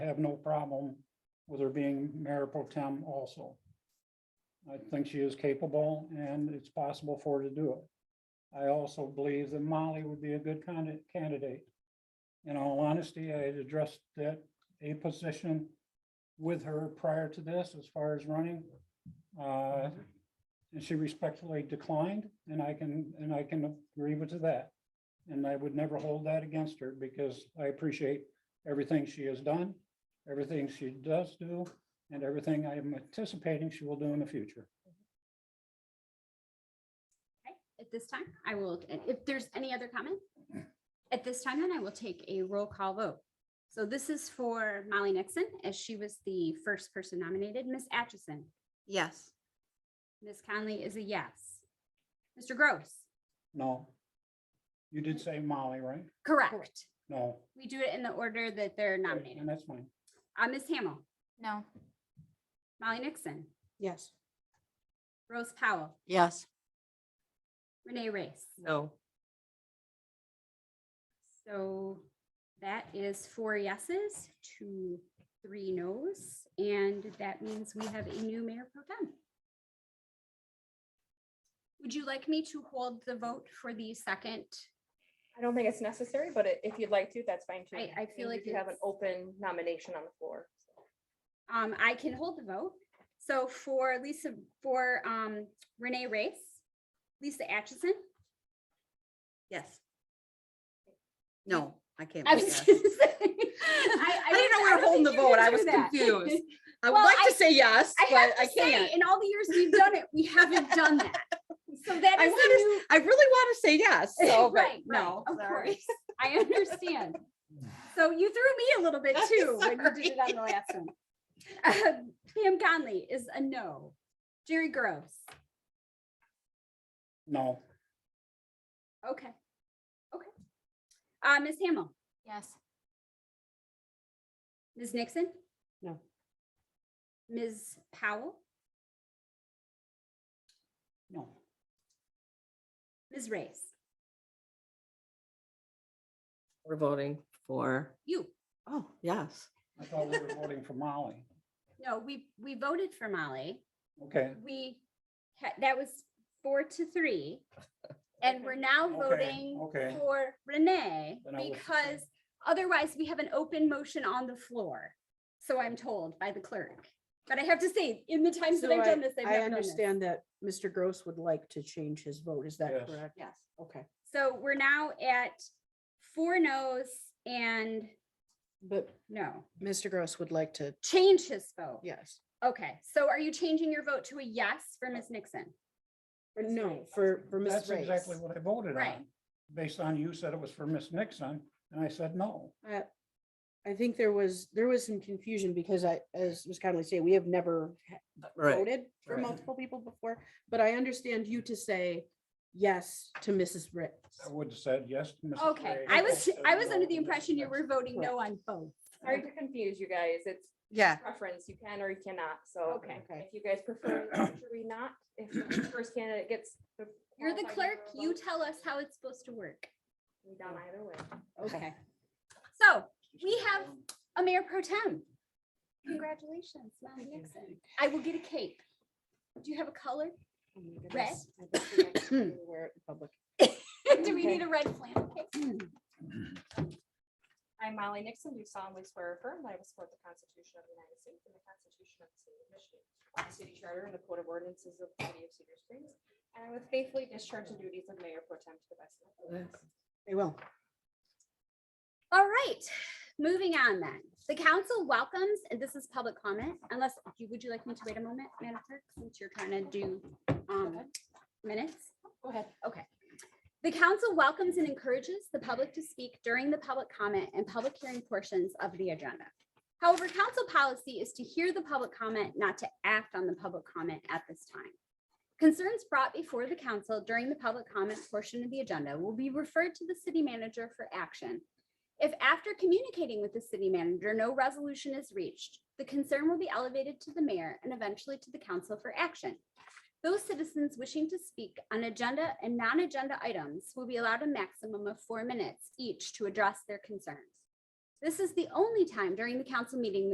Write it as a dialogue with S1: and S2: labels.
S1: have no problem with her being mayor pro tem also. I think she is capable and it's possible for her to do it. I also believe that Molly would be a good candi- candidate. In all honesty, I had addressed that a position with her prior to this as far as running. Uh, And she respectfully declined and I can, and I can agree with that. And I would never hold that against her because I appreciate everything she has done, everything she does do, and everything I am anticipating she will do in the future.
S2: Okay, At this time, I will, and if there's any other comment, at this time, then I will take a roll call vote. So this is for Molly Nixon, as she was the first person nominated. Ms. Atchison,
S3: Yes.
S2: Ms. Conley is a yes. Mr. Gross,
S1: No. You did say Molly, right?
S2: correct.
S1: No.
S2: We do it in the order that they're nominated.
S1: And that's fine.
S2: Uh, Ms. Hamel,
S3: No.
S2: Molly Nixon,
S3: Yes.
S2: Rose Powell,
S3: Yes.
S2: Renee Race.
S3: No.
S2: So that is four yeses to three nos, and that means we have a new mayor pro tem. Would you like me to hold the vote for the second?
S4: I don't think it's necessary, but i- if you'd like to, that's fine too.
S2: I- I feel
S4: mean, we
S2: like
S4: do have an
S2: it's-
S4: open nomination on the floor. so.
S2: Um, I can hold the vote. So for Lisa, for um Renee Race, Lisa Atchison.
S3: Yes. No, I can't.
S2: I
S3: vote
S2: was
S3: yes.
S2: gonna say-
S3: I didn't know we were
S2: was
S3: holding the vote. I
S2: confused
S3: was
S2: with that.
S3: confused. I would
S2: Well,
S3: like
S2: I-
S3: to say yes,
S2: I
S3: but
S2: have
S3: I
S2: to say,
S3: can't.
S2: in all the years we've done it, we haven't done that. So that
S3: I
S2: is
S3: wanna
S2: a new.
S3: I really want to say yes, so, but
S2: Right, right,
S3: no.
S2: Of
S3: sorry.
S2: course, I understand. So you threw me a little bit too when you did it on the last one. Um, Pam Conley is a no. Jerry Gross,
S1: No.
S2: okay, okay. Uh, Ms. Hamel? Yes. Ms. Nixon?
S3: No.
S2: Ms. Powell?
S1: No.
S2: Ms. Race?
S5: We're voting for,
S2: You?
S3: Oh, yes.
S1: I thought we were voting for Molly.
S2: No, we, we voted for Molly.
S1: Okay.
S2: We, ha- that was four to three. And we're now
S1: Okay,
S2: voting
S1: okay.
S2: for Renee
S1: Then I will
S2: because
S1: abstain.
S2: otherwise we have an open motion on the floor. So I'm told by the clerk. But I have to say, in the times that
S6: So
S2: I've done this, I've
S6: I
S2: never done this.
S6: understand that Mr. Gross would like to change his vote. Is
S1: Yes.
S6: that correct?
S3: Yes.
S6: Okay,
S2: So we're now at four no's and
S6: but
S2: no,
S6: Mr. Gross would like to,
S2: change his vote.
S6: yes.
S2: Okay, so are you changing your vote to a yes for Ms. Nixon?
S6: Or
S2: Ms.
S6: No,
S2: Race.
S6: for, for Ms.
S1: That's
S6: Race.
S1: exactly what I voted on.
S2: Right.
S1: Based on you said it was for Miss Nixon and I said no.
S6: Uh, I think there was, there was some confusion because I, as Ms. Conley said, we have never ha-
S5: right,
S6: voted for
S5: right.
S6: multiple people before, but I understand you to say yes to Mrs. Race.
S1: I would have said yes. to Mrs.
S2: Okay,
S1: Ray.
S2: I was,
S1: said
S2: I was
S1: no
S2: under
S1: to
S2: the
S1: Mrs.
S2: impression you were
S1: Nixon.
S2: voting no on both.
S4: Sorry to confuse you guys. It's
S3: Yeah.
S4: preference. You can or you cannot. So.
S2: Okay.
S6: Okay.
S4: If you guys prefer, in the future we not, if the first candidate gets.
S2: You're the
S4: qualified
S2: clerk,
S4: number of
S2: you
S4: votes,
S2: tell us how it's supposed to work.
S4: we Down either way.
S2: Okay. So we have a mayor pro tem. Congratulations, Molly Nixon. I will get a cake. Do you have a color?
S6: Oh my
S2: Red.
S6: goodness, I bet you guys shouldn't even Wear it in public.
S2: Do we need a red flannel cake?
S4: I, am Molly Nixon, do solemnly swear or affirm that I will support the Constitution of the United States and the Constitution of the State of Michigan, the City Charter and the Code of Ordinances of the City of Cedar Springs, and I would faithfully discharge the duties of Mayor Pro Tem to the best of my ability.
S6: They will.
S2: All right, moving on then. The council welcomes, and this is public comment, unless, you would you like me to wait a moment, Madam Clerk, since you're trying to do um, minutes?
S4: Go ahead.
S2: Okay. The council welcomes and encourages the public to speak during the public comment and public hearing portions of the agenda. However, council policy is to hear the public comment, not to act on the public comment at this time. Concerns brought before the council during the public comment portion of the agenda will be referred to the city manager for action. If after communicating with the city manager, no resolution is reached, the concern will be elevated to the mayor and eventually to the council for action. Those citizens wishing to speak on agenda and non-agenda items will be allowed a maximum of four minutes each to address their concerns. This is the only time during the council meeting